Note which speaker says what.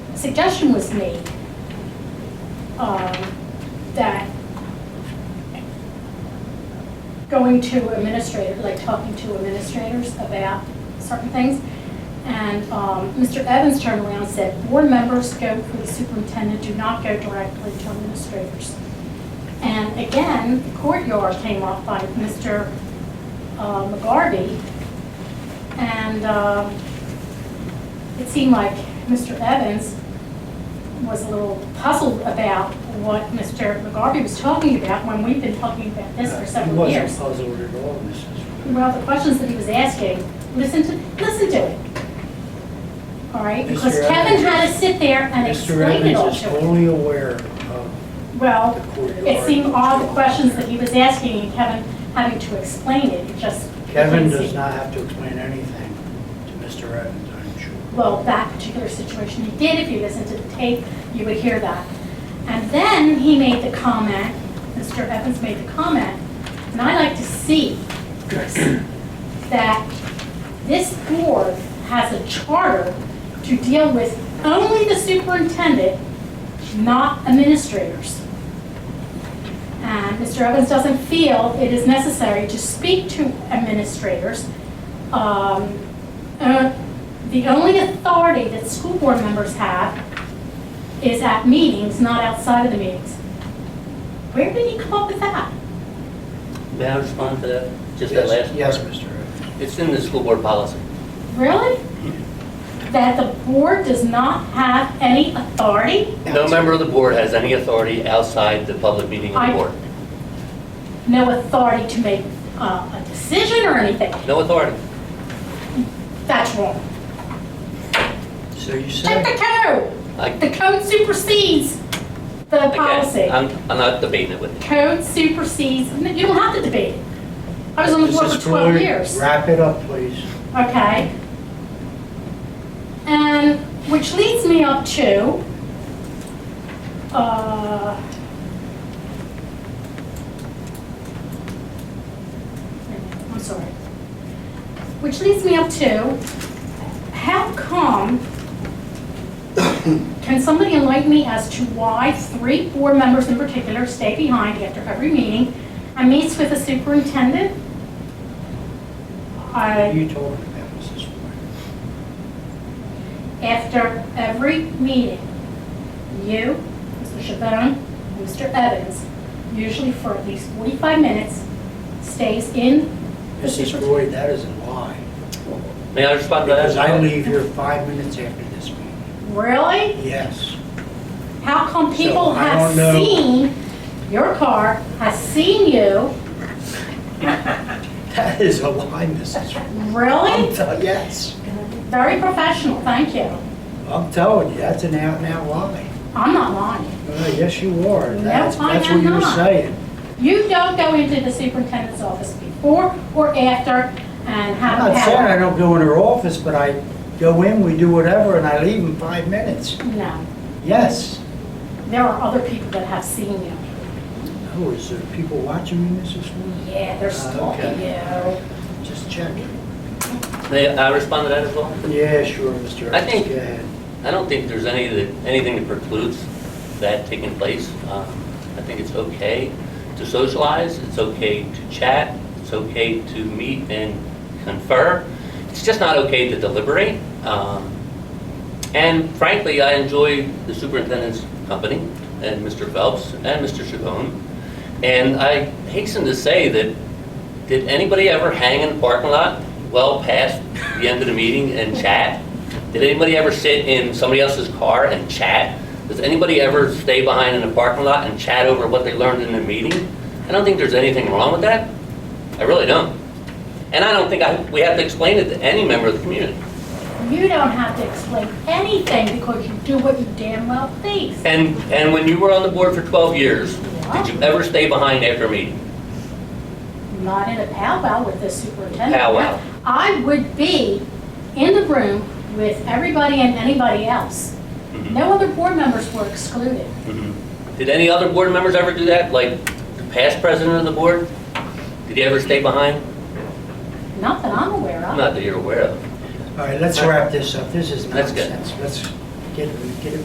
Speaker 1: suggestion was made um, that going to administrator, like talking to administrators about certain things. And um, Mr. Evans turned around and said, board members go through the superintendent, do not go directly to administrators. And again, the courtyard came up by Mr. uh, McGarvey. And um, it seemed like Mr. Evans was a little puzzled about what Mr. McGarvey was talking about when we've been talking about this for several
Speaker 2: Uh, He
Speaker 1: years.
Speaker 2: wasn't puzzled at all, Mrs.
Speaker 1: Well, the questions that he was asking, listen to, listen to it. All right, because
Speaker 2: Mr.
Speaker 1: Kevin
Speaker 2: Evans-
Speaker 1: had to sit there and
Speaker 2: Mr.
Speaker 1: explain it all
Speaker 2: Evans is
Speaker 1: to him.
Speaker 2: only aware of the
Speaker 1: Well,
Speaker 2: courtyard.
Speaker 1: it seemed all the questions that he was asking, and Kevin having to explain it, it just.
Speaker 2: Kevin
Speaker 1: didn't
Speaker 2: does
Speaker 1: seem-
Speaker 2: not have to explain anything to Mr. Evans, I'm sure.
Speaker 1: Well, that particular situation he did, if you listened to the tape, you would hear that. And then he made the comment, Mr. Evans made the comment, and I like to see this, that this board has a charter to deal with only the superintendent, not administrators. And Mr. Evans doesn't feel it is necessary to speak to administrators. Um, uh, The only authority that school board members have is at meetings, not outside of the meetings. Where did he come up with that?
Speaker 3: May I respond to that? Just that last?
Speaker 2: Yes, Mr. Evans.
Speaker 3: It's in the school board policy.
Speaker 1: Really? That the board does not have any authority?
Speaker 3: No member of the board has any authority outside the public meeting of
Speaker 1: I-
Speaker 3: the board.
Speaker 1: No authority to make uh, a decision or anything?
Speaker 3: No authority.
Speaker 1: That's wrong.
Speaker 2: So you
Speaker 1: Check
Speaker 2: said,
Speaker 1: the code!
Speaker 3: I-
Speaker 1: The code supersedes the
Speaker 3: again,
Speaker 1: policy.
Speaker 3: I'm, I'm not debating it with you.
Speaker 1: Code supersedes, you don't have to debate it. I was on the board
Speaker 2: Mrs.
Speaker 1: for 12
Speaker 2: Floyd,
Speaker 1: years.
Speaker 2: wrap it up, please.
Speaker 1: okay? And, which leads me up to, uh, I'm sorry. Which leads me up to, how come, can somebody enlighten me as to why three board members in particular stay behind after every meeting and meets with the superintendent? I.
Speaker 2: You told me that, Mrs. Floyd.
Speaker 1: After every meeting, you, Mr. Chabon, and Mr. Evans, usually for at least 45 minutes, stays in the
Speaker 2: Mrs.
Speaker 1: superintendent.
Speaker 2: Floyd, that is a lie.
Speaker 3: May I respond to that?
Speaker 2: Because I leave here five minutes after this meeting.
Speaker 1: Really?
Speaker 2: Yes.
Speaker 1: How come people
Speaker 2: So, I
Speaker 1: have
Speaker 2: don't know.
Speaker 1: seen, your car has seen you,
Speaker 2: That is a lie, Mrs. Floyd. I'm
Speaker 1: really?
Speaker 2: tell- Yes.
Speaker 1: Very professional, thank you.
Speaker 2: I'm telling you, that's an out and out lie.
Speaker 1: I'm not lying.
Speaker 2: Uh, Yes, you are.
Speaker 1: No,
Speaker 2: That's,
Speaker 1: I
Speaker 2: that's
Speaker 1: am
Speaker 2: what you're
Speaker 1: not.
Speaker 2: saying.
Speaker 1: You don't go into the superintendent's office before or after and
Speaker 2: I'm
Speaker 1: have a
Speaker 2: not saying I
Speaker 1: power.
Speaker 2: don't go in her office, but I go in, we do whatever, and I leave in five minutes.
Speaker 1: No,
Speaker 2: Yes.
Speaker 1: there are other people that have seen you.
Speaker 2: Oh, is there people watching me, Mrs. Floyd?
Speaker 1: Yeah, they're stalking you.
Speaker 2: Just checking.
Speaker 3: May I respond to that as well?
Speaker 2: Yeah, sure, Mr. Evans.
Speaker 3: I think-
Speaker 2: Go ahead.
Speaker 3: I don't think there's any, that- anything that precludes that taking place. Um, I think it's okay to socialize, it's okay to chat, it's okay to meet and confer. It's just not okay to deliberate. Um, And frankly, I enjoy the superintendent's company and Mr. Phelps and Mr. Chabon. And I hasten to say that, did anybody ever hang in the parking lot well past the end of the meeting and chat? Did anybody ever sit in somebody else's car and chat? Does anybody ever stay behind in the parking lot and chat over what they learned in the meeting? I don't think there's anything wrong with that. I really don't. And I don't think I, we have to explain it to any member of the community.
Speaker 1: You don't have to explain anything because you do what you damn well please.
Speaker 3: And, and when you were on the board for 12 years, did you ever stay behind after a meeting?
Speaker 1: Not in a powwow with the superintendent.
Speaker 3: Powwow.
Speaker 1: I would be in the room with everybody and anybody else.
Speaker 3: Mm-hmm.
Speaker 1: No other board members were excluded.
Speaker 3: Mhm. Did any other board members ever do that? Like the past president of the board? Did he ever stay behind?
Speaker 1: Not that I'm aware of.
Speaker 3: Not that you're aware of.
Speaker 2: All right, let's wrap this up. This is
Speaker 3: That's good.
Speaker 2: nonsense. Let's get, get it